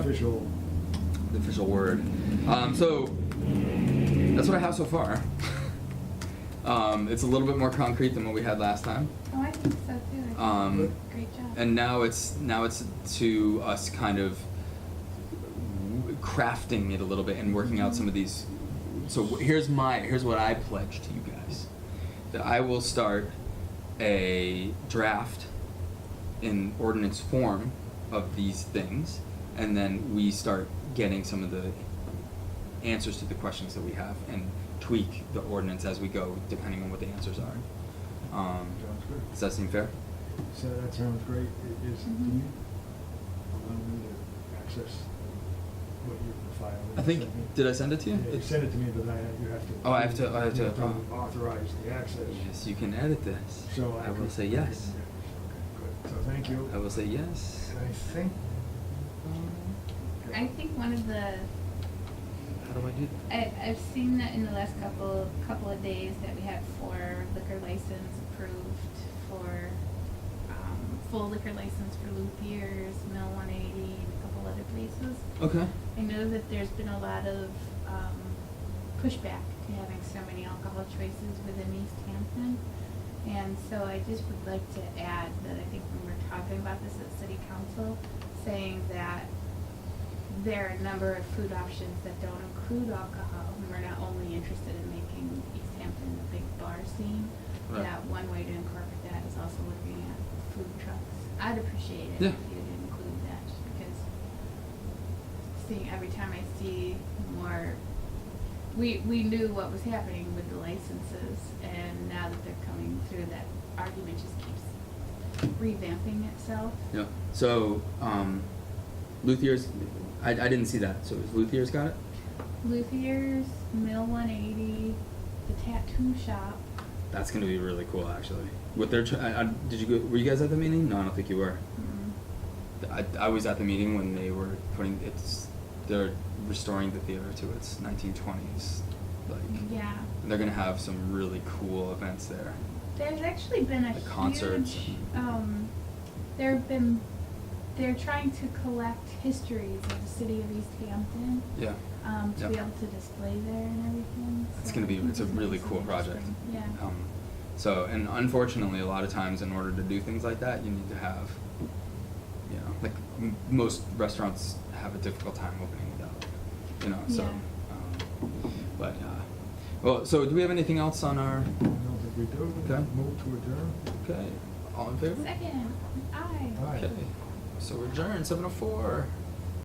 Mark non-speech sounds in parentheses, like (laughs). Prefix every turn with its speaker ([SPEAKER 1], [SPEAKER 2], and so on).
[SPEAKER 1] official.
[SPEAKER 2] the official word. Um, so that's what I have so far. (laughs) um, it's a little bit more concrete than what we had last time,
[SPEAKER 3] Oh, I think so too. I think
[SPEAKER 2] Um,
[SPEAKER 3] Great job.
[SPEAKER 2] and now it's now it's to us kind of crafting it a little bit and working out some of these. So wh- here's my here's what I pledge to you guys that I will start a draft in ordinance form of these things, and then we start getting some of the answers to the questions that we have and tweak the ordinance as we go, depending on what the answers are. Um,
[SPEAKER 1] Sounds good.
[SPEAKER 2] does that seem fair?
[SPEAKER 1] So that sounds great. It is, do
[SPEAKER 3] Mhm.
[SPEAKER 1] you allow
[SPEAKER 3] Mm-hmm.
[SPEAKER 1] me to access what you filed?
[SPEAKER 2] I think. Did I send it to you?
[SPEAKER 1] Yeah, you sent it to me, but I, you have to.
[SPEAKER 2] Oh, I have to- I have
[SPEAKER 1] you
[SPEAKER 2] to- oh.
[SPEAKER 1] Authorize the access.
[SPEAKER 2] Yes, you can edit this.
[SPEAKER 1] So I.
[SPEAKER 2] I will
[SPEAKER 1] could-
[SPEAKER 2] say yes.
[SPEAKER 1] Okay, Good. So thank you.
[SPEAKER 2] I will say yes. Um,
[SPEAKER 1] And I think.
[SPEAKER 3] I think one of the
[SPEAKER 2] How do I do that?
[SPEAKER 3] I, I've seen that in the last couple couple of days that we had four liquor license approved for um, full liquor license for Luthiers, Mill 180, and a couple other places.
[SPEAKER 2] Okay.
[SPEAKER 3] I know that there's been a lot of um, pushback to having so many alcohol choices within East Hampton. And so I just would like to add that I think when we're talking about this at city council, saying that there are a number of food options that don't include alcohol, and we're not only interested in making East Hampton a big bar scene,
[SPEAKER 2] Right.
[SPEAKER 3] that one way to incorporate that is also looking at food trucks. I'd appreciate it
[SPEAKER 2] Yeah.
[SPEAKER 3] if you'd include that, just because seeing every time I see more. We we knew what was happening with the licenses, and now that they're coming through, that argument just keeps revamping itself.
[SPEAKER 2] Yeah. So, um, Luthier's. I, I didn't see that. So is Luthier's got it?
[SPEAKER 3] Luthiers, Mill 180, the tattoo shop.
[SPEAKER 2] That's gonna be really cool, actually. What they're try- I, I, did you go? Were you guys at the meeting? No, I don't think you were.
[SPEAKER 3] Mm,
[SPEAKER 2] I, I was at the meeting when they were putting it's. They're restoring the theater to its 1920s, like.
[SPEAKER 3] yeah,
[SPEAKER 2] They're gonna have some really cool events there.
[SPEAKER 3] there's actually been a
[SPEAKER 2] The concerts
[SPEAKER 3] huge.
[SPEAKER 2] and-
[SPEAKER 3] Um, there have been. They're trying to collect histories of the city of East Hampton.
[SPEAKER 2] Yeah.
[SPEAKER 3] um, to
[SPEAKER 2] Yeah.
[SPEAKER 3] be able to display there and everything.
[SPEAKER 2] It's
[SPEAKER 3] so
[SPEAKER 2] gonna
[SPEAKER 3] I
[SPEAKER 2] be,
[SPEAKER 3] think
[SPEAKER 2] it's a
[SPEAKER 3] gonna be
[SPEAKER 2] really
[SPEAKER 3] so
[SPEAKER 2] cool project.
[SPEAKER 3] interesting. Yeah.
[SPEAKER 2] Um, so, and unfortunately, a lot of times in order to do things like that, you need to have, you know, like m- most restaurants have a difficult time opening without, you know, so.
[SPEAKER 3] Yeah.
[SPEAKER 2] Um, but, uh, well, so do we have anything else on our,
[SPEAKER 1] I don't think we do.
[SPEAKER 2] Okay.
[SPEAKER 1] Move to adjourn.
[SPEAKER 2] okay, all in favor?
[SPEAKER 3] Second, aye.
[SPEAKER 1] Aye.
[SPEAKER 2] Okay, so we're adjourned, 7:04.